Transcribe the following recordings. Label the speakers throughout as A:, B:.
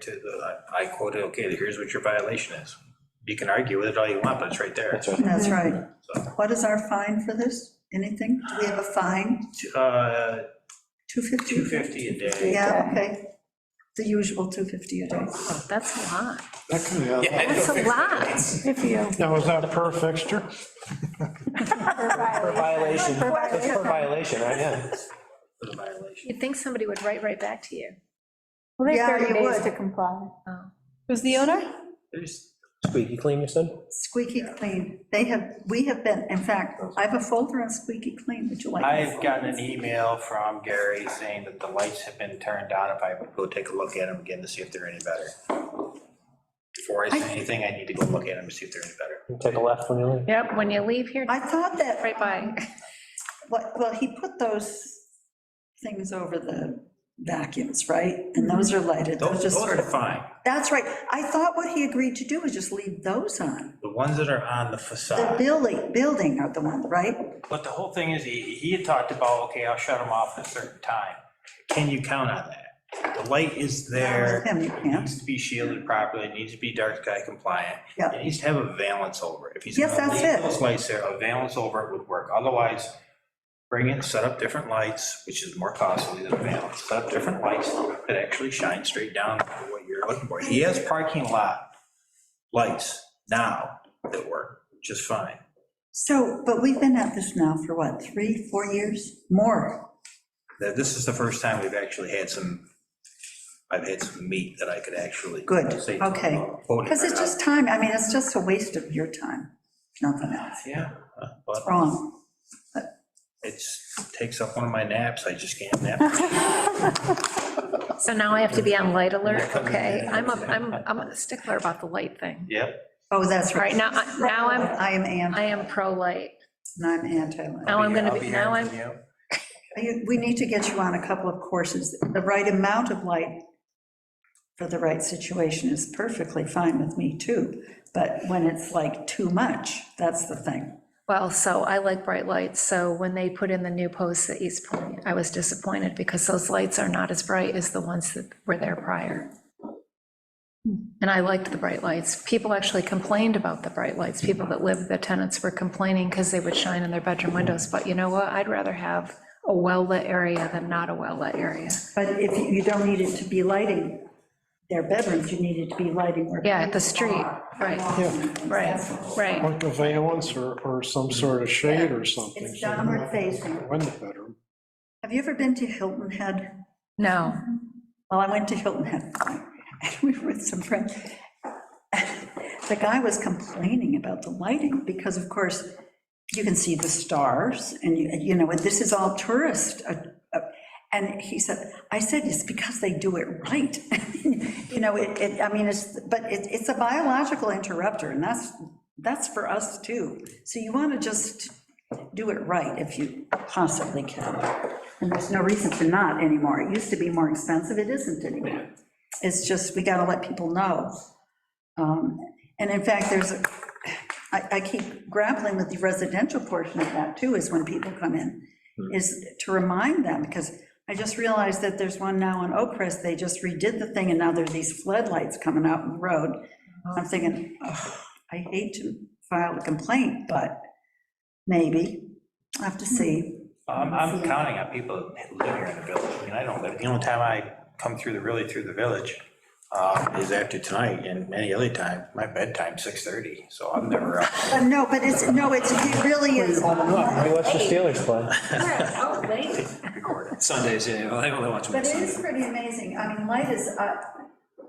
A: to the, I quoted, okay, here's what your violation is. You can argue with it all you want, but it's right there.
B: That's right.
C: That's right. What is our fine for this? Anything? Do we have a fine?
A: Uh,
C: 250?
A: 250 a day.
C: Yeah, okay. The usual 250 a day.
D: Oh, That's a lot.
E: That can be, out.
D: That's a lot.
F: If you,
E: now is that per fixture?
B: Per violation, that's per violation, right, yeah.
A: For the violation.
D: You'd think somebody would write right back to you.
F: well, they
C: Yeah,
F: have 30
C: you
F: days
C: would.
F: to comply.
D: Oh.
F: Who's the owner?
A: There's-
B: Squeaky clean, you said?
C: Squeaky clean. They have, we have been, in fact, I have a folder on squeaky clean. Would you like?
A: I've gotten an email from Gary saying that the lights have been turned on. If I would go take a look at them again to see if they're any better. Before I say anything, I need to go look at them to see if they're any better.
B: Take a left when you leave.
D: Yep, when you leave here,
C: I thought that,
D: right by.
C: what- well, he put those things over the vacuums, right? And those are lighted.
A: Those, those
C: Those just sort
A: are
C: of,
A: fine.
C: that's right. I thought what he agreed to do was just leave those on.
A: The ones that are on the
C: The
A: facade.
C: building, building are the ones, right?
A: But the whole thing is, he, he had talked about, okay, I'll shut them off at a certain time. Can you count on that? The light is there.
C: Him, you
A: It
C: can't.
A: needs to be shielded properly, it needs to be dark sky compliant.
C: Yeah.
A: It needs to have a valance over it. If he's
C: Yes,
A: gonna
C: that's
A: leave
C: it.
A: Those lights there, a valance over it would work. Otherwise, bring it, set up different lights, which is more costly than a valance. Set up different lights that actually shine straight down for what you're looking for. He has parking lot lights now that work just fine.
C: So, but we've been at this now for what, three, four years? More.
A: Now, This is the first time we've actually had some, I've had some meat that I could actually.
C: Good,
A: say,
C: okay.
A: quote it
C: Because
A: right
C: it's
A: out.
C: just time, I mean, it's just a waste of your time, if nothing else.
A: Yeah, uh, but
C: Wrong.
A: it's, takes up one of my naps, I just can't nap.
D: So now I have to be on light alert,
A: Coming in.
D: okay? I'm a, I'm, I'm a stickler about the light thing.
A: Yep,
C: Oh, that's
D: All right,
C: right.
D: now, I- now I'm,
C: I am anti,
D: I am pro-light.
C: and I'm anti.
D: Now I'm gonna be,
A: hearing
D: now I'm,
A: from you.
C: You- We need to get you on a couple of courses. The right amount of light for the right situation is perfectly fine with me, too. But when it's like too much, that's the thing.
D: well, so I like bright lights, so when they put in the new posts at East Point, I was disappointed because those lights are not as bright as the ones that were there prior. And I liked the bright lights. People actually complained about the bright lights. People that lived, the tenants were complaining because they would shine in their bedroom windows. But you know what? I'd rather have a well-lit area than not a well-lit area.
C: But if you you don't need it to be lighting their bedrooms, you need it to be lighting where.
D: Yeah, the street, right,
E: Yeah,
D: right, right.
E: like a valance or, or some sort of shade or something.
C: It's downward facing.
E: Window bedroom.
C: Have you ever been to Hilton Head?
D: No,
C: Well, I went to Hilton Head, and we were with some friends. The guy was complaining about the lighting, because of course, you can see the stars, and you, you know, and this is all tourist. uh, uh, And he said, I said, it's because they do it right. You know, it, it, I mean, it's, but it, it's a biological interrupter, and that's, that's for us too. So you want to just do it right if you possibly can. And there's no reason to not anymore. It used to be more expensive, it isn't anymore. It's just, we gotta let people know. Um, And in fact, there's, a- I, I keep grappling with the residential portion of that too, is when people come in, is to remind them, because I just realized that there's one now on Oak Crest, they just redid the thing, and now there are these floodlights coming out in the road. I'm thinking, "Ugh, I hate to file a complaint, but maybe, I have to see.
A: I'm, I'm counting on people that live here in the village, I mean, I don't live, the only time I come through the, really through the village um, is after tonight, and any other time, my bedtime, 6:30, so I'm never up.
C: But no, but it's, no, it's, it really is.
B: We watched the Steelers play.
G: Sundays, yeah, well, I only watch them on
C: But it
G: Sundays.
C: is pretty amazing. I mean, light is, uh,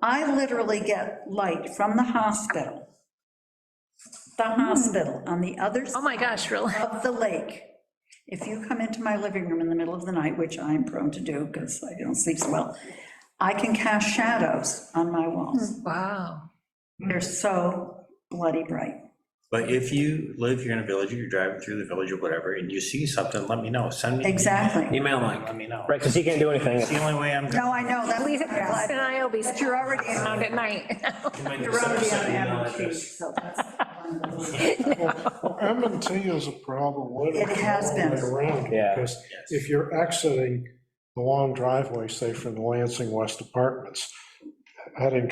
C: I literally get light from the hospital. The hospital on the other
D: Hmm. oh
C: side
D: my gosh, really?
C: of the lake. If you come into my living room in the middle of the night, which I'm prone to do because I don't sleep so well, I can cast shadows on my walls.
D: Wow.
C: They're so bloody bright.
A: But if you live here in a village, or you're driving through the village or whatever, and you see something, let me know, send me. an
C: Exactly.
G: Email
A: email,
G: Mike.
A: Let me know.
B: Right, because he can't do anything.
A: It's the only way I'm. gonna-
C: No, I know, that's.
D: Lisa and I will be
C: But you're already in
D: around at night.
G: You might
C: You're already on
G: send
C: the
G: an email
C: average,
G: address.
C: so that's.
E: Well, M and T is a problem. with
C: It has been.
E: all the way Around,
B: Yeah.
E: because if you're exiting the long driveway, say from the Lansing West Apartments, I didn't